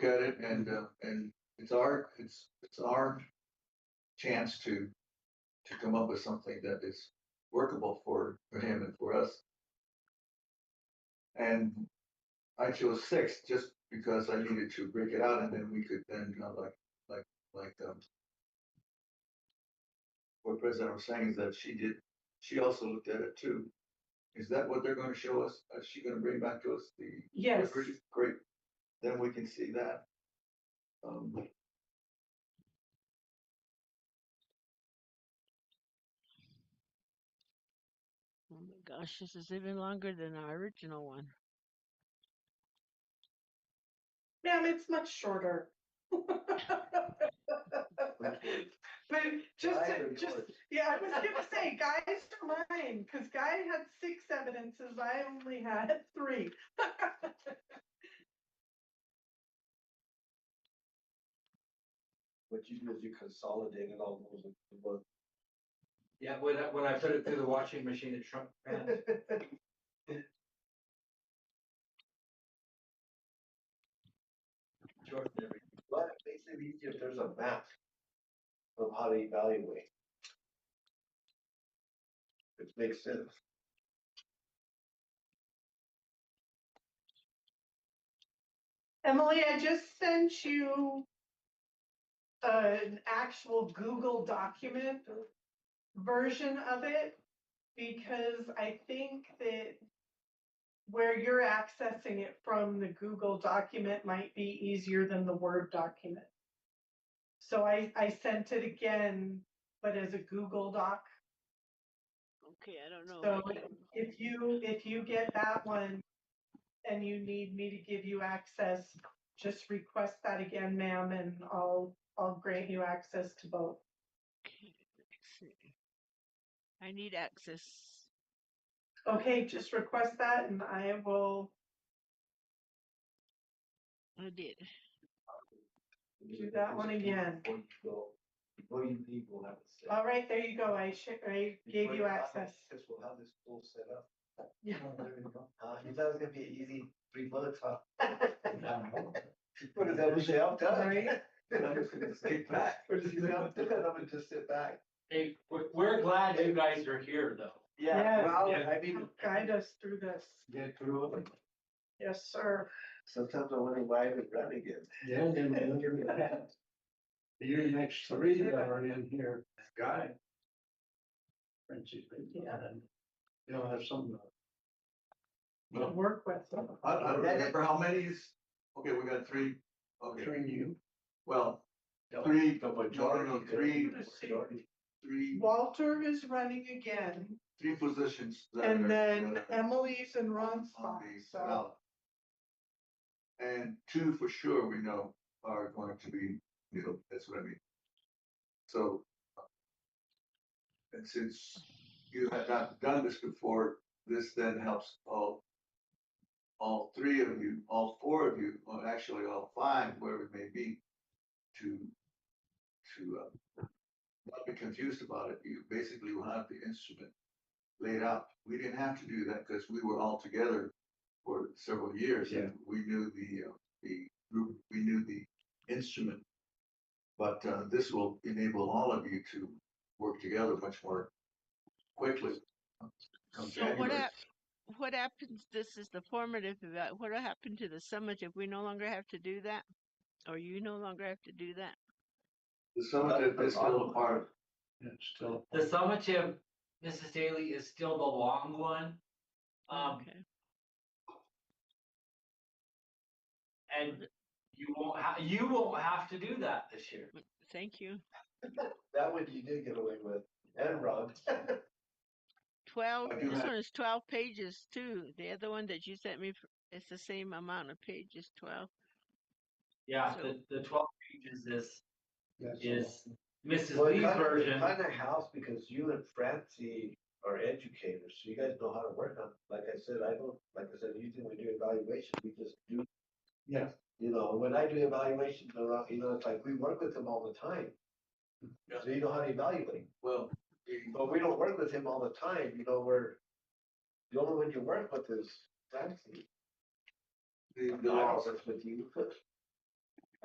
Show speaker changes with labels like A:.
A: at it and, uh, and it's our, it's, it's our chance to, to come up with something that is workable for, for him and for us. And I chose six just because I needed to break it out and then we could then, you know, like, like, like, um, what President was saying is that she did, she also looked at it too. Is that what they're gonna show us? Is she gonna bring back to us the
B: Yes,
A: Agreed, great, then we can see that. Um,
C: Oh my gosh, this is even longer than our original one.
B: ma'am, it's much shorter. But just,
A: I
B: to-
A: agree
B: just,
A: with it.
B: yeah, I was gonna say, guys are mine, because Guy had six evidences, I only had three.
D: What you do is you consolidated all those into one.
E: Yeah, when I, when I put it through the washing machine, it shrunk. fast.
D: Sure. But it makes it easier if there's a map of how to evaluate. It makes sense.
B: Emily, I just sent you an actual Google document version of it because I think that where you're accessing it from the Google document might be easier than the Word document. So I, I sent it again, but as a Google doc.
C: Okay, I don't know.
B: So
C: I can't-
B: if you, if you get that one and you need me to give you access, just request that again, ma'am, and I'll, I'll grant you access to both.
C: okay, let's see. I need access.
B: Okay, just request that and I will
C: I did.
B: do that one again.
D: Before you go, before you leave, we'll have it set.
B: All right, there you go. I sh- I gave
D: Before
B: you
D: have it
B: access.
D: set, We'll have this all set up.
B: Yeah.
D: Uh, you thought it was gonna be an easy three months, huh? What does that mean? I'm done.
B: Right.
D: Then I'm just gonna sit back. We're just gonna, I'm done, I'm gonna just sit back.
E: Hey, we're, we're glad you guys are here though.
B: Yes.
D: Well,
E: Yeah.
D: I mean,
B: Guide us through this.
D: get through it.
B: Yes, sir.
D: Sometimes I wonder why we're running it.
F: Yeah, and then you're gonna Your next three that are in here, guy. Francis, yeah, and you'll have some.
B: To
F: Well,
B: work with.
A: I, I don't remember how many is, okay, we got three, okay,
F: between you.
A: well, Three,
D: The
A: no, no, three.
D: majority.
A: three,
B: Walter is running again
A: three positions. that are-
B: and then
A: that are
B: Emily's and Ron's spot,
A: on the
B: so.
A: ballot. And two for sure we know are going to be, you know, that's what I mean. So. uh, And since you have not done this before, this then helps all. All three of you, all four of you, or actually all five, wherever it may be, to, to, uh. Not be confused about it. You basically will have the instrument laid out. We didn't have to do that because we were all together for several years. and We knew the, uh, the group, we knew the instrument. But, uh, this will enable all of you to work together much more quickly. come
C: So what
A: January.
C: hap- what happens, this is the formative, eva- what happened to the summit if we no longer have to do that? Or you no longer have to do that?
A: The summative is still a part of
F: It's still,
E: The summative, Mrs. Daly, is still the long one. Um,
C: Okay,
E: and you won't, ha- you won't have to do that this year.
C: thank you.
D: That one you did get away with, and Rob.
C: Twelve,
A: I do
C: this
A: have-
C: one is twelve pages too. The other one that you sent me, f- it's the same amount of pages, twelve.
E: Yeah,
C: So-
E: the, the twelve pages is,
F: yes.
E: is Mrs.
D: Well,
E: Lee's version.
D: Kind of house because you and Francie are educators, so you guys know how to work on, it. like I said, I don't, like I said, usually when we do evaluation, we just do.
F: Yeah.
D: You know, when I do evaluations around, you know, it's like we work with them all the time.
A: Yeah.
D: So you know how to evaluate,
A: well, the-
D: but we don't work with him all the time, you know, we're. The only one you work with is Francie.
A: the,
D: No,
A: the,
D: that's with you.